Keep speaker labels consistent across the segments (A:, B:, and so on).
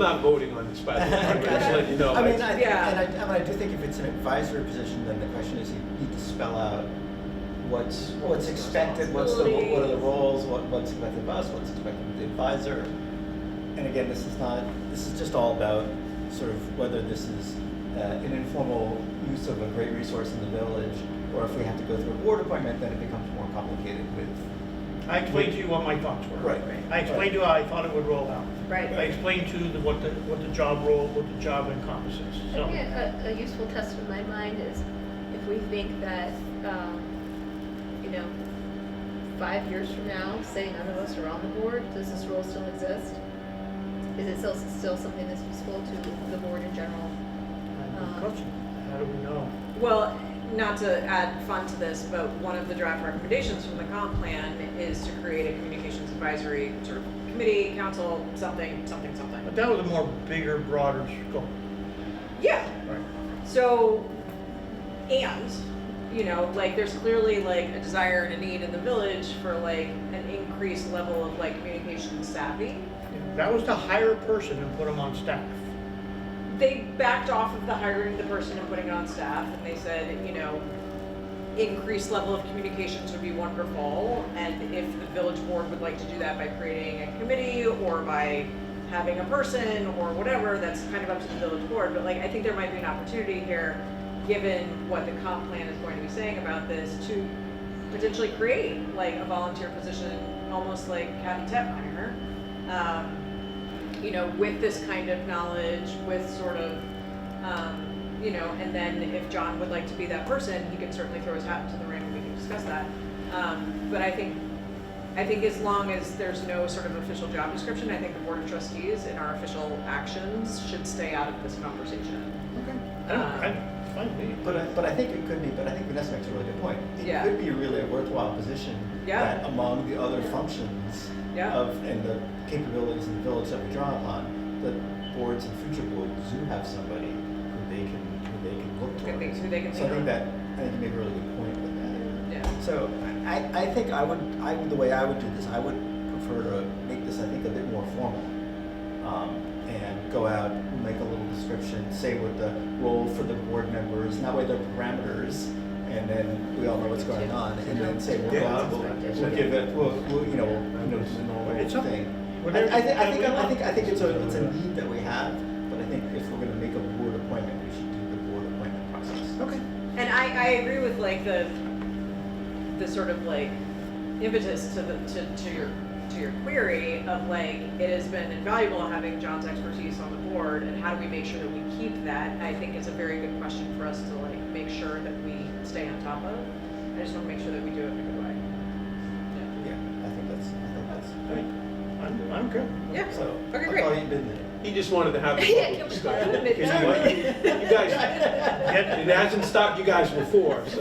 A: Not voting on this, by the way, I'm just letting you know.
B: I mean, I, think-
C: Yeah.
B: and I, I mean, I do think if it's an advisory position, then the question is, you need to spell out what's, what's expected, what's the, what are the
C: Responsibilities.
B: roles, what, what's expected of us, what's expected of the advisor. And again, this is not, this is just all about sort of whether this is uh, an informal use of a great resource in the village, or if we have to go through a board appointment, then it becomes more complicated with.
D: I explained to you what my thoughts were.
B: Right.
D: I explained to you how I thought it would roll out. I
E: Right.
D: explained to you the- what the, what the job role, what the job encompasses,
E: I
D: so.
E: think a, a useful test in my mind is if we think that, um, you know, five years from now, say none of us are on the board, does this role still exist? Is it still, still something that's useful to the board in general? Um,
D: Good question. How do we know?
C: Well, not to add fun to this, but one of the draft recommendations from the comp plan is to create a communications advisory sort of committee, council, something, something,
D: But
C: something.
D: that was a more bigger, broader scope.
C: Yeah,
D: Right.
C: so, and, you know, like, there's clearly like a desire and a need in the village for like an increased level of like communication savvy.
D: That was to hire a person and put them on staff.
C: they backed off of the hiring the person and putting it on staff and they said you know increased level of communications would be wonderful and if the village board would like to do that by creating a committee or by having a person or whatever that's kind of up to the village board but like i think there might be an opportunity here given what the comp plan is going to be saying about this to potentially create like a volunteer position almost like kathy tetmeyer um, you know, with this kind of knowledge, with sort of, um, you know, and then if John would like to be that person, he could certainly throw his hat into the ring and we can discuss that. Um, but I think, I think as long as there's no sort of official job description, I think the board of trustees and our official actions should stay out of this conversation.
B: Okay.
D: I don't,
E: Ah.
D: I, fine, with me.
B: But I, but I think it could be, but I think Vanessa makes a really good point. It
C: Yeah.
B: could be really a worthwhile position
C: Yeah.
B: that among the other functions
C: Yeah.
B: of and the capabilities in the village that we draw upon, the boards and future boards do have somebody who they can who they can look
C: Good
B: towards.
C: things, who they can
B: So I
C: lean
B: think
C: on.
B: that I think you make a really good point with that.
C: Um, Yeah.
B: So I, I think I would I would the way I would do this I would prefer to make this I think a bit more formal um, and go out make a little description say what the role for the board members and that way their parameters and then we all know what's going on and then say we'll go out we'll, we'll give it we'll, we'll you know we'll, you know it's a normal
D: It's up-
B: thing. I,
D: Whatever-
B: I think I think
D: whatever
B: I
D: we
B: think I
D: want.
B: think it's a it's a need that we have but I think if we're going to make a board appointment we should do the board appointment process.
D: Okay.
C: And I, I agree with like the the sort of like impetus to the to, to your to your query of like it has been invaluable having John's expertise on the board and how do we make sure that we keep that I think is a very good question for us to like make sure that we stay on top of. I just want to make sure that we do it in a good way.
B: Yeah, I think that's I think that's.
D: All right. I'm, I'm good.
C: Yeah. Yeah.
B: So
C: Okay,
B: I'll
C: great.
B: call you midnight.
A: He just wanted to have a public
E: Yeah, can we
A: discussion.
E: call it
A: Because you like- You guys,
D: Get-
A: it hasn't stopped you guys before, so.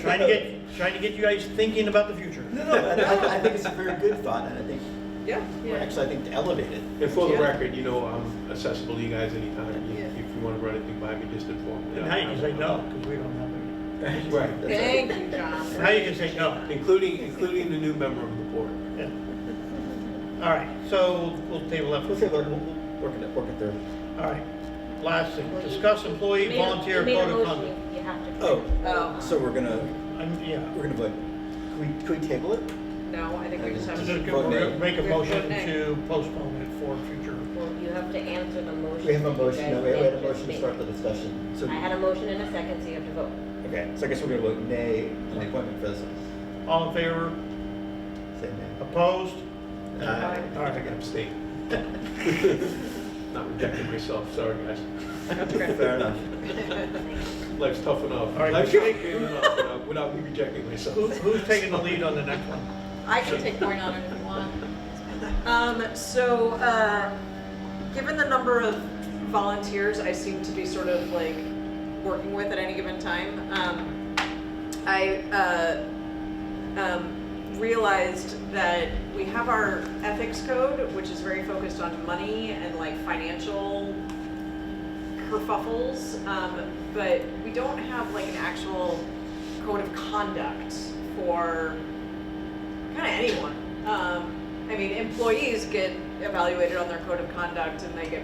D: Trying to get, trying to get you guys thinking about the future.
B: No, no, but I, I think it's a very good thought, and I think
C: Yeah.
E: Yeah.
B: actually I think to elevate it.
A: And for the
C: Yeah.
A: record, you know, I'm accessible to you guys anytime. You-
E: Yeah.
A: If you want to run anything by me, just inform me.
D: And now you can say no, because we don't have any.
A: Right.
B: That's-
C: Thank you, John.
D: Now you can say no.
A: Including, including the new member of the board.
D: Yeah. All right, so we'll table that for
B: We'll say
D: future.
B: we'll, we'll we'll work it, work it through.
D: All right, last thing, discuss
E: You
D: employee
E: made a-
D: volunteer
E: you made a
D: code of
E: motion,
D: conduct.
E: You have to.
B: Oh.
C: Oh.
B: So we're gonna
D: I'm- Yeah,
B: we're gonna vote. Can we, can we table it?
C: No, I think we just have
D: So
C: to.
D: just go-
B: Vote nay.
D: make a
C: Vote
D: motion
C: nay.
D: to postpone it for future.
E: Well, you have to answer the motion.
B: We have a
E: that you
B: motion.
E: guys
B: No, we had a
E: did
B: motion to
E: just
B: start
E: make.
B: the discussion. So
E: I had a motion and a second, so you have to vote.
B: okay. So I guess we're gonna vote nay on the appointment for this.
D: All in favor?
B: Say nay.
D: Opposed? Uh,
B: Aye.
A: All right, I can abstain. Not rejecting myself, sorry, guys.
B: Fair enough.
A: Life's tough enough.
D: All right.
A: Life's complicated enough without- without me rejecting myself.
D: Who- Who's taking the lead on the next one?
C: I can take point on it if you want. Um, so, uh, given the number of volunteers I seem to be sort of like working with at any given time, um, I uh, um, realized that we have our ethics code, which is very focused on money and like financial kerfuffles, um, but we don't have like an actual code of conduct for kind of anyone. Um, I mean, employees get evaluated on their code of conduct and they get